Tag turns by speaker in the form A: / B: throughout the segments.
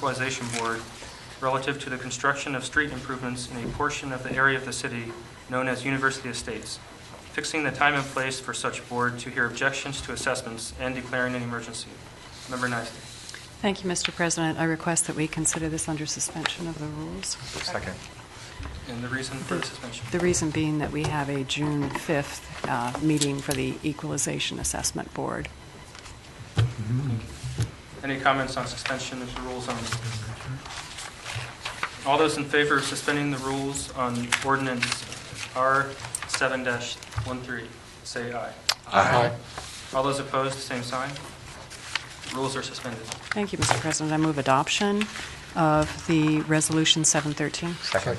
A: Equalization Board relative to the construction of street improvements in a portion of the area of the city known as University Estates, fixing the time and place for such board to hear objections to assessments and declaring an emergency. Member Nysel.
B: Thank you, Mr. President. I request that we consider this under suspension of the rules.
C: Second.
A: And the reason for the suspension?
B: The reason being that we have a June 5th uh, meeting for the Equalization Assessment Board.
A: Any comments on suspension of the rules on this? All those in favor of suspending the rules on ordinance R7-13, say aye.
C: Aye.
A: All those opposed, same sign. Rules are suspended.
B: Thank you, Mr. President. I move adoption of the Resolution 713.
C: Second.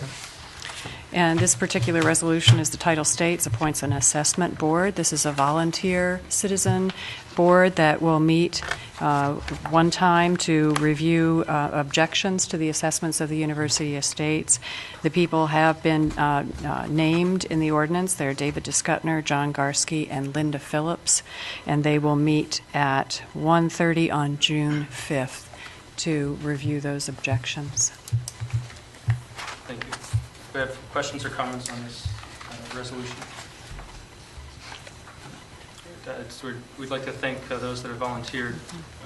B: And this particular resolution is the title states, appoints an assessment board. This is a volunteer citizen board that will meet uh, one time to review uh, objections to the assessments of the university estates. The people have been uh, uh, named in the ordinance. They're David Discutner, John Garsky, and Linda Phillips, and they will meet at 1:30 on June 5th to review those objections.
A: Thank you. We have questions or comments on this uh, resolution? Uh, it's- we're- We'd like to thank uh, those that have volunteered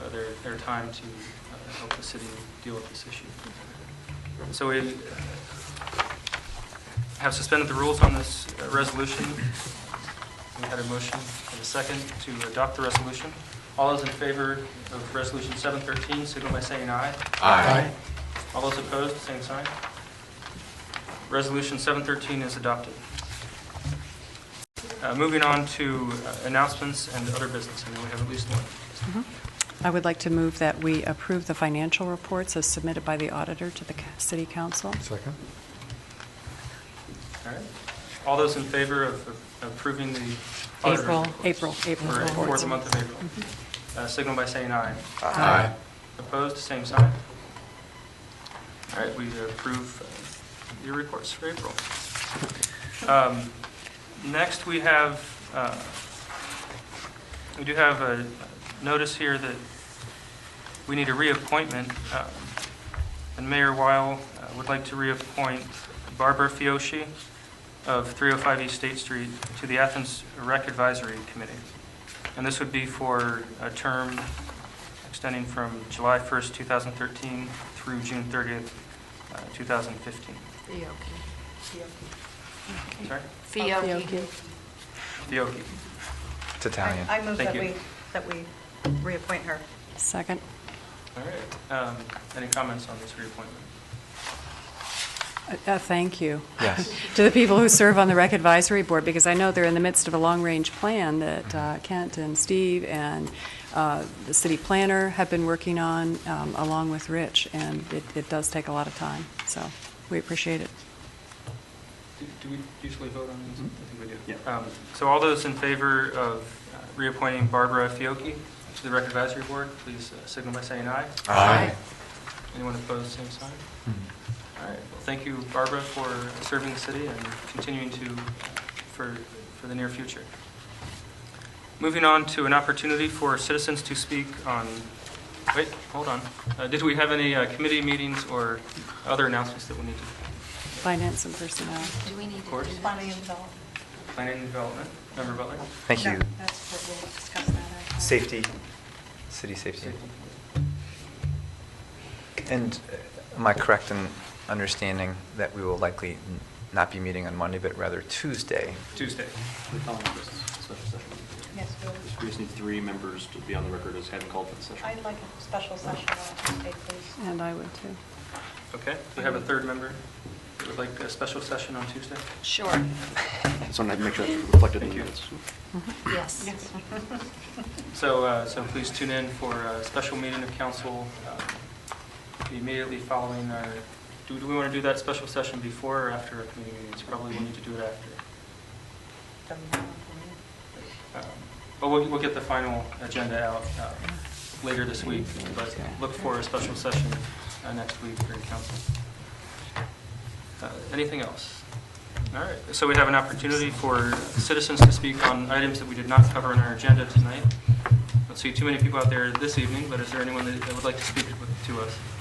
A: uh, their their time to uh, help the city deal with this issue. So we uh, have suspended the rules on this uh, resolution. We had a motion and a second to adopt the resolution. All those in favor of Resolution 713, signal by saying aye.
C: Aye.
A: All those opposed, same sign. Resolution 713 is adopted. Uh, Moving on to uh, announcements and other business, I know we have at least one.
B: I would like to move that we approve the financial reports as submitted by the auditor to the ca- city council.
C: Second.
A: All right. All those in favor of of approving the auditor's
B: April,
A: reports
B: April, April
A: For for
B: reports.
A: the month of April. Uh, Signal by saying aye.
C: Aye.
A: Opposed, same sign. All right, we approve uh, your reports for April. Um, Next, we have, uh, we do have a notice here that we need a reappointment, uh, and Mayor Weil uh, would like to reappoint Barbara Fiocchi of 305 East State Street to the Athens Rec Advisory Committee. And this would be for a term extending from July 1st, 2013 through June 30th, uh, 2015. Sorry?
D: Fiocchi.
A: Fiocchi.
C: It's Italian.
D: I move
A: Thank
D: that
A: you.
D: we, that we reappoint her.
B: Second.
A: All right. Um, Any comments on this reappointment?
B: Uh, uh, Thank you.
C: Yes.
B: To the people who serve on the Rec Advisory Board, because I know they're in the midst of a long-range plan that uh, Kent and Steve and uh, the city planner have been working on, um, along with Rich, and it- it does take a lot of time, so we appreciate it.
A: Do do we usually vote on these? I think we do. Um, So all those in favor of uh, reappointing Barbara Fiocchi to the Rec Advisory Board, please uh, signal by saying aye.
C: Aye.
A: Anyone opposed, same sign? All right, well, thank you, Barbara, for serving the city and continuing to, for, for the near future. Moving on to an opportunity for citizens to speak on, wait, hold on. Uh, Did we have any uh, committee meetings or other announcements that we need to,
B: Finance and personnel.
E: Do we need
A: Of
E: to
A: course.
E: do that?
D: Bonnie and Bill.
A: planning and development? Member Butler?
C: Thank
D: No,
C: you.
D: That's what we'll discuss that. at-
C: Safety, city safety. And uh, am I correct in understanding that we will likely n- not be meeting on Monday, but rather Tuesday?
A: Tuesday.
F: We're calling for a special session.
D: Yes, Bill.
F: We just need three members to be on the record as having called for the session.
D: I'd like a special session on Tuesday, please.
B: And I would too.
A: Okay, we have a third member that would like a special session on Tuesday?
E: Sure,
F: So I have to make sure that's reflected in the
A: Thank you.
F: minutes.
E: yes.
A: So, uh, so please tune in for a special meeting of council um, immediately following our, do do we want to do that special session before or after our committee meetings? Probably we need to do it after.
D: Doesn't matter to
A: Um, But we'll, we'll get the final agenda out uh, later this week, but look for a special session uh, next week for council. Uh, Anything else? All right, so we have an opportunity for citizens to speak on items that we did not cover on our agenda tonight. I don't see too many people out there this evening, but is there anyone that that would like to speak with- to us?